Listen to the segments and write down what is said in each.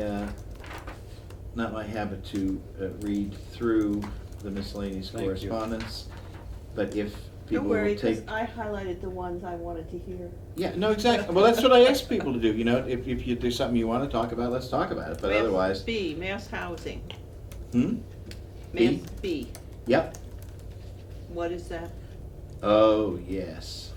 uh, not my habit to uh, read through the miscellaneous Thank you. correspondence, but if people Don't worry, will take. because I highlighted the ones I wanted to hear. Yeah, no, exactly, well, that's what I ask people to do, you know, if, if you do something you wanna talk about, let's talk about it, but Mass otherwise, B, mass housing, hmm, mass B? B, yep, what is that? oh, yes,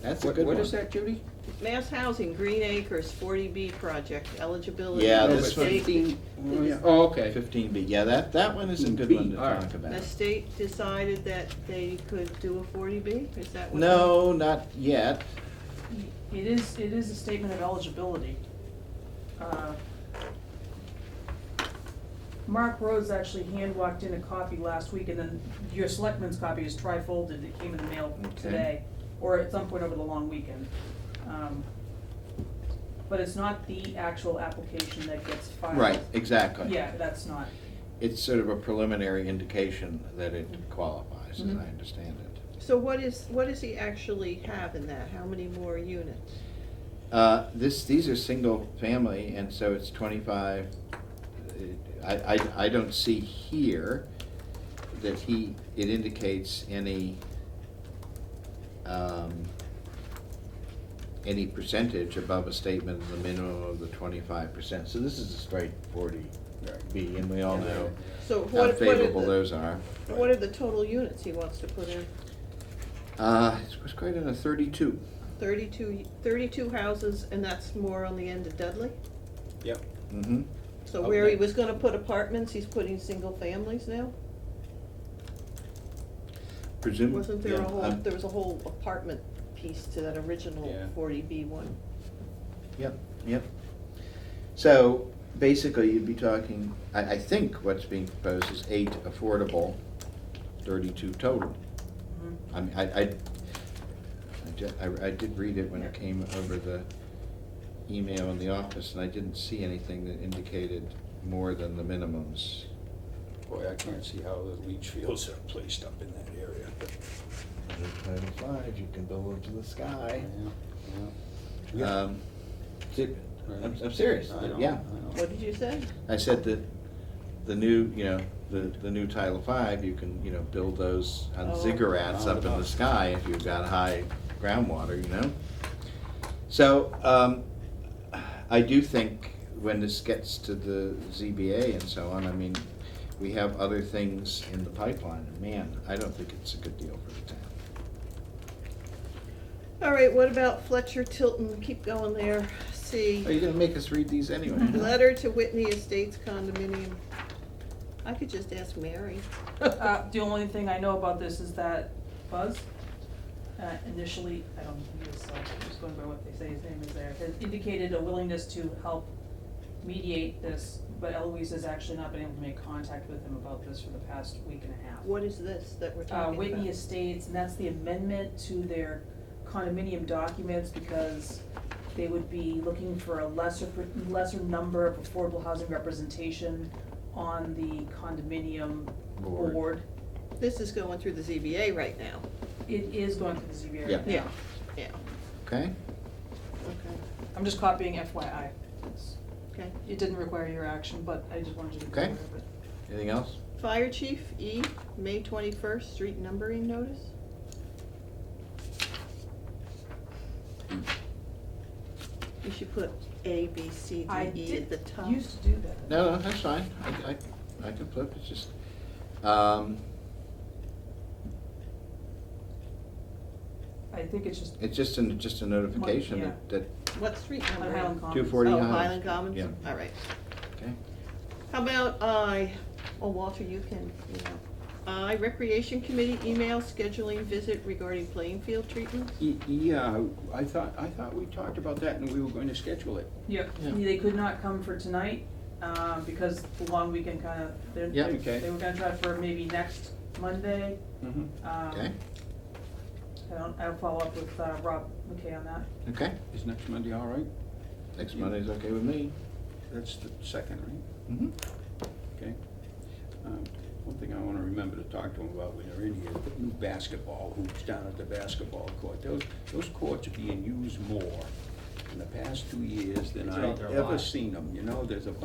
that's a What- good one. What is that, Judy? Mass housing, Green Acres, forty B project, eligibility. Yeah, No, the this but one- state- fifteen- oh, the- yeah. Oh, okay. Fifteen B, yeah, that, that one is a good one to B, all right. talk about. The state decided that they could do a forty B, is that what? No, not yet, It is, it is a statement of eligibility. Uh, Mark Rhodes actually hand walked in a copy last week, and then your selectman's copy is trifolded, it came in the mail Okay. today, or at some point over the long weekend. Um, But it's not the actual application that gets filed. right, exactly. Yeah, that's not. It's sort of a preliminary indication that it qualifies, as I Mm-hmm. Mhm. understand it. So what is, what does he actually have in that, how many more units? Uh, This, these are single family, and so it's twenty-five. uh, I, I, I don't see here that he, it indicates any, um, any percentage above a statement of the minimum of the twenty-five percent. So this is a straight forty B, and we all know So what, what how are favorable the- those are. What are the total units he wants to put in? Uh, It was quite in a thirty-two. 32 32 houses, and that's more on the end of Dudley? Yep. Mm-hmm. So Up where he next. was gonna put apartments, he's putting single families now? Presume. Wasn't there yeah, a whole, um, there was a whole apartment piece to that Yeah. original forty B one? Yep, yep. So basically, you'd be talking, I, I think what's being proposed is eight affordable, thirty-two total. Mhm. I mean, I, I, I ju- I- I did read it when it came over the email in the office, and I didn't see anything that indicated more than the minimums. Boy, I can't see how the leach fields are placed up in that area. Title five, you can build into the sky. Yeah. Um, si- I'm, I'm serious, I know, yeah. I know. What did you say? I said that the new, you know, the, the new Title Five, you can, you know, build those on Oh. ziggurats up in the Roundabout. sky if you've got high groundwater, you know? So, um, I do think when this gets to the ZBA and so on, I mean, we have other things in the pipeline, and man, I don't think it's a good deal for the town. All right, what about Fletcher Tilton, keep going there, Are you C, gonna make us read these anyway? letter to Whitney Estates condominium. I could just ask Mary. Uh, The only thing I know about this is that Buzz, uh, initially, I don't think he was, uh, I'm just going by what they say his name is there, has indicated a willingness to help mediate this, but Eloise has actually not been able to make contact with him about this for the past week and a half. What is this that we're Uh, talking about? Whitney Estates, and that's the amendment to their condominium documents because they would be looking for a lesser, lesser number of affordable housing representation on the condominium Board. board. This is going through the ZBA right now, It is going to the ZBA Yeah. right now. yeah, yeah, Okay, okay, I'm just copying FYI. okay. It didn't require your action, but I just wanted you to be Okay. aware of it. anything else? Fire Chief E, May twenty-first, street numbering notice? You should put A, B, C, I D, E at the did, top. used to do that. No, no, that's fine, I, I, I can flip, it's just, um, I think it's just It's just an, just a notification One, that, that, What street on number? Highland Commons. Two forty. Oh, Highland. Highland Commons? Yeah. All right. okay, How about I, oh, Walter, you can, you know. I, Recreation Committee email scheduling visit regarding playing field treatment? Y- Yeah, uh, I thought, I thought we talked about that and we were going to schedule it. Yep, Yeah. they could not come for tonight, um, because the long weekend kind of, they're, Yeah. Okay. they were gonna try for maybe next Monday. Mhm. Um, okay, I don't, I'll follow up with, uh, Rob McKay on that. okay. Is next Monday all right? Next Monday's okay with me. That's the second, right? Mm-hmm. Okay. Um, One thing I want to remember to talk to them about when they're in here, the new basketball hoops down at the basketball court. Those, those courts are being used more in the past two years than It's out I've there a ever lot. seen them, you know? There's a